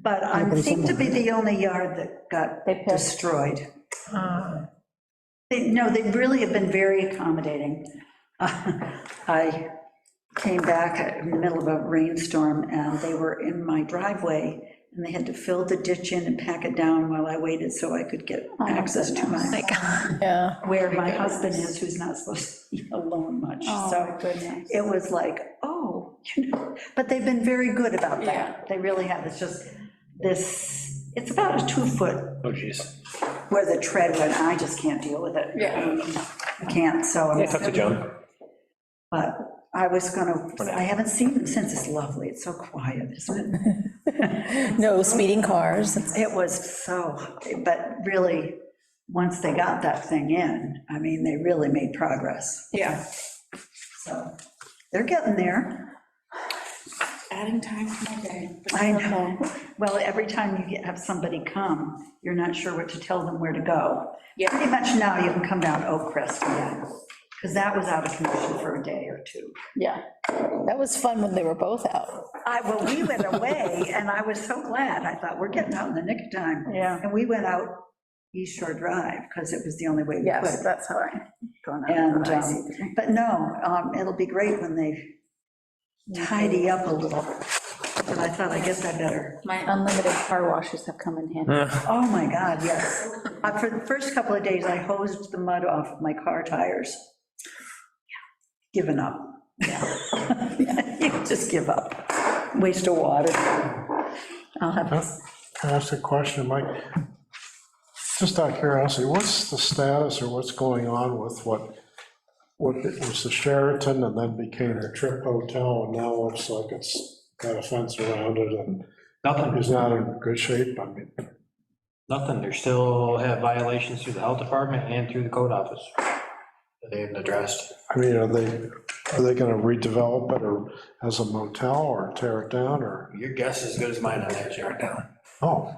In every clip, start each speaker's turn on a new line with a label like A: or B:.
A: but I seem to be the only yard that got
B: They pissed.
A: destroyed. They- No, they really have been very accommodating. I came back in the middle of a rainstorm, and they were in my driveway, and they had to fill the ditch in and pack it down while I waited so I could
B: Oh
A: get access to my,
B: Yeah.
A: where my husband is, who's not supposed to be alone much, so.
B: Oh goodness.
A: it was like, oh, you know, but they've been very good about
B: Yeah.
A: that. They really have. It's just this, it's about a two-foot
C: Oh, jeez.
A: where the tread went, and I just can't deal with it.
B: Yeah.
A: I Can't, so, I'm-
C: I talked to John.
A: but I was gonna, I haven't seen them since. It's lovely. It's so quiet, isn't it?
B: No speeding cars.
A: It was so, but really, once they got that thing in, I mean, they really made progress.
B: Yeah.
A: So they're getting there.
D: Adding time to my day.
A: I know. Well, every time you get- have somebody come, you're not sure what to tell them where to go.
D: Yeah.
A: Pretty much now, you can come down Oak Crest, yeah, because that was out of commission for a day or two.
B: Yeah. That was fun when they were both out.
A: I, well, we went away, and I was so glad, I thought, we're getting out in the nick of time.
B: Yeah.
A: And we went out East Shore Drive, because it was the only way we could.
B: that's how I. gone out
A: And,
B: when I see
A: um, but no, um, it'll be great when they tidy up a little, but I thought, I guess I better
D: My
B: Unlimited car washes have come in handy.
A: Oh, my God, yes. Uh, For the first couple of days, I hosed the mud off of my car tires. Given up. You Just give up. Waste of water. I'll have,
E: Can I ask a question, Mike? Just out of curiosity, what's the status or what's going on with what, what it was the Sheraton and then became the Trip Hotel and now looks like it's got a fence around it and
C: Nothing,
E: is not in good shape, I mean,
C: nothing. They still have violations through the health department and through the code office. that They haven't addressed.
E: I mean, are they, are they gonna redevelop it or as a motel or tear it down or,
C: Your guess is as good as mine on that, Jared, now.
E: oh,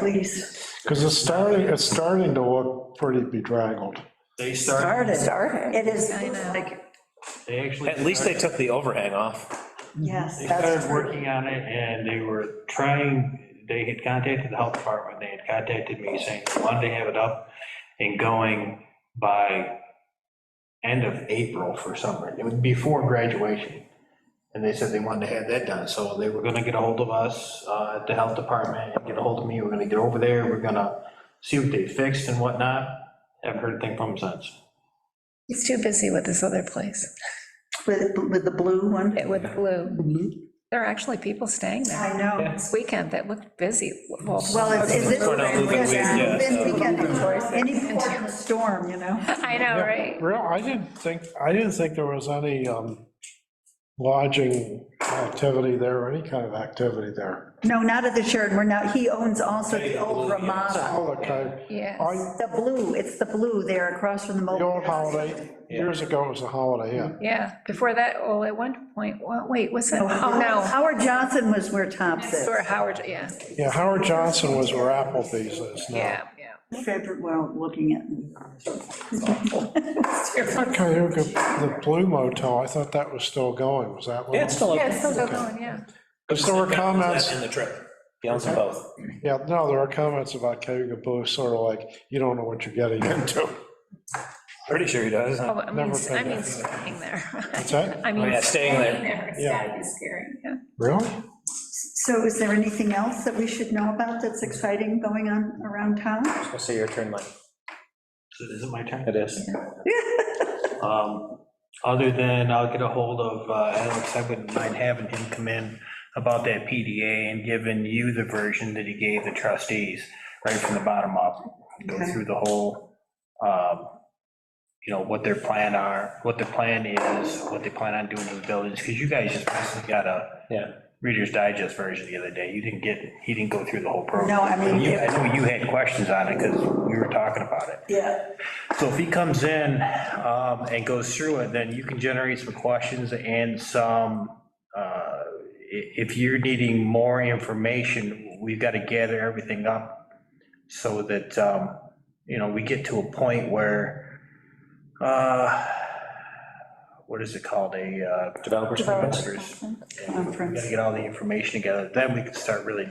A: please.
E: because it's starting, it's starting to look pretty bedraggled.
C: They start,
A: Started. Started. It is like,
C: they actually.
F: At least they took the overhang off.
A: yes,
C: They
A: that's
C: started working on it, and they were trying, they had contacted the health department, they had contacted me saying they wanted to have it up and going by end of April for summer, it was before graduation. And they said they wanted to have that done, so they were gonna get a hold of us, uh, at the health department, and get a hold of me, we're gonna get over there, we're gonna see what they fixed and whatnot, haven't heard a thing from them since.
G: He's too busy with this other place,
A: with, with the blue one.
G: with Blue.
E: Mm-hmm.
G: There are actually people staying there
A: I know.
G: this weekend that looked busy. Well,
A: Well, it's, is it,
F: Going out a little bit weird, yeah,
A: it's been weekend, any port in the storm, you know?
G: I know, right?
E: Real, I didn't think, I didn't think there was any um, lodging activity there, or any kind of activity there.
A: No, not at the Sheridan, we're not, he owns also the old Ramada.
E: All the kind,
G: Yes,
E: Oh, I-
A: The blue, it's the blue there across from the
E: the
A: mobile.
E: old holiday, years ago it was a Holiday Inn.
G: yeah. Before that, well, at one point, well, wait, was it, oh, no.
A: Howard Johnson was where Tops is.
G: Or Howard, yeah,
E: Yeah, Howard Johnson was where Applebee's is now.
G: yeah, yeah.
A: Favorite, well, looking at,
E: Cayuga, the Blue Motel, I thought that was still going, was that one?
F: Yeah, it's still
G: Yeah,
F: open.
G: it's still going, yeah.
E: Because there were comments,
F: In the trip. He owns them both.
E: yeah, no, there were comments about Cayuga Blue, sort of like, you don't know what you're getting into.
F: Pretty sure he does.
G: Oh, I mean,
E: Uh, Never been
G: I mean,
E: there.
G: staying there.
E: What's that?
G: I
F: Oh,
G: mean,
F: yeah, staying there.
G: there.
E: Yeah.
G: That'd be scary, yeah.
E: Really?
A: so is there anything else that we should know about that's exciting going on around town?
F: Let's see your turn, Mike.
C: Is it my turn?
F: It is.
C: Um, Other than I'll get a hold of uh, Alex, I wouldn't mind having him come in about that PDA and giving you the version that he gave the trustees, right from the bottom up. Go
A: Okay.
C: through the whole, um, you know, what their plan are, what their plan is, what they plan on doing to the buildings, because you guys just basically got a
F: Yeah.
C: Reader's Digest version the other day. You didn't get, he didn't go through the whole program.
A: No, I mean,
C: You- I know you had questions on it because we were talking about it.
A: Yeah.
C: So if he comes in um, and goes through it, then you can generate some questions and some, uh, i- if you're needing more information, we've got to gather everything up so that, um, you know, we get to a point where, uh, what is it called, a, uh,
F: Developers.
C: investors?
A: Conference.
C: Got to get all the information together, then we can start really